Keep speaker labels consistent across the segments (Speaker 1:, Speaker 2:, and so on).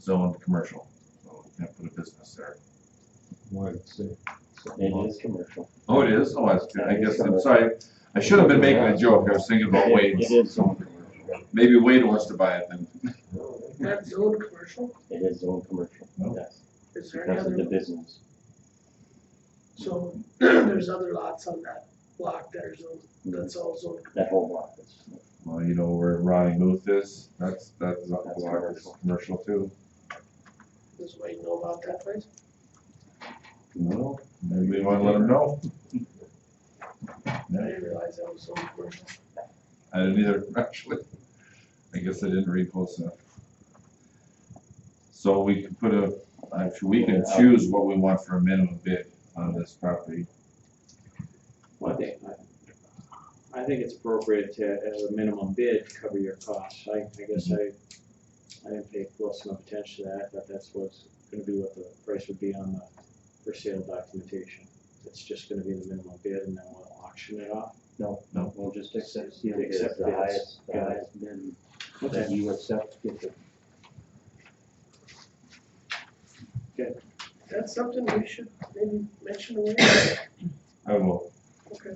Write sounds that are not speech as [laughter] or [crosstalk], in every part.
Speaker 1: zoned commercial, so we can't put a business there.
Speaker 2: Why, it's, uh,
Speaker 3: It is commercial.
Speaker 1: Oh, it is, oh, that's good, I guess, I'm sorry, I should have been making a joke, I was thinking about
Speaker 3: It
Speaker 1: Wade's.
Speaker 3: is- It is zone commercial.
Speaker 1: Maybe Wade wants to buy it then.
Speaker 4: That's old commercial,
Speaker 3: It is zone commercial,
Speaker 1: No.
Speaker 3: yes,
Speaker 4: is there any
Speaker 3: because of the
Speaker 4: other,
Speaker 3: business.
Speaker 4: so [clears throat] there's other lots on that block that are zoned, that's all zoned.
Speaker 3: That whole block is,
Speaker 1: Well, you know where Ronnie Muth is, that's, that's, a lot
Speaker 3: That's
Speaker 1: of
Speaker 3: commercial.
Speaker 1: commercial too.
Speaker 4: Does Wade know about that place?
Speaker 1: No. Maybe we wanna let him know.
Speaker 4: I
Speaker 1: Yeah,
Speaker 4: didn't realize that was zoned commercial.
Speaker 1: I didn't either, [laughs] actually. I guess I didn't read close enough. So we can put a, actually, we can choose what we want for a minimum bid on this property.
Speaker 5: Well, I think, I think it's appropriate to, as a minimum bid, cover your costs. I, I guess I, I didn't pay close enough attention to that, but that's what's gonna be what the price would be on the for sale documentation. It's just gonna be the minimum bid and then we'll auction it off.
Speaker 3: no,
Speaker 1: No.
Speaker 3: no, we'll just accept,
Speaker 5: You
Speaker 3: you
Speaker 5: accept
Speaker 3: accept the
Speaker 5: bids.
Speaker 3: highest, the
Speaker 5: Yeah.
Speaker 3: highest bid that you accept, get the
Speaker 4: That's something we should maybe mention to Wade,
Speaker 1: I will,
Speaker 4: okay.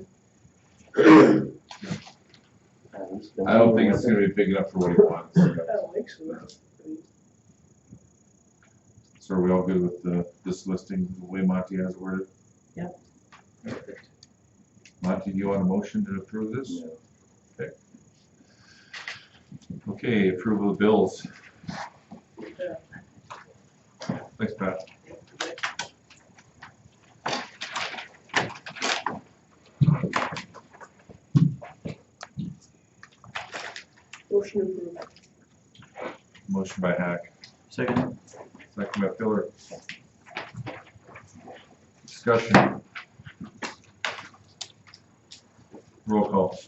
Speaker 3: highest. the
Speaker 1: I don't think
Speaker 3: minimum
Speaker 1: it's gonna be big enough for what he wants.
Speaker 4: I don't think so.
Speaker 1: So are we all good with the, this listing, the way Monty has worded? Yep. Monty, do you want a motion to approve this?
Speaker 3: bid.
Speaker 1: Okay, approval of bills.
Speaker 4: Yeah.
Speaker 1: Thanks, Pat.
Speaker 4: Motion approved.
Speaker 1: Motion by Hack,
Speaker 5: Second.
Speaker 1: second by Pillar. Discussion. Roll call.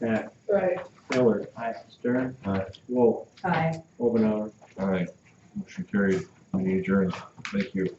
Speaker 5: Hack,
Speaker 4: Aye.
Speaker 5: Miller. Stern.
Speaker 1: Aye.
Speaker 5: Wolf.
Speaker 6: Aye.
Speaker 5: Omenauer.
Speaker 1: All right, motion carried, meeting adjourned. Thank you.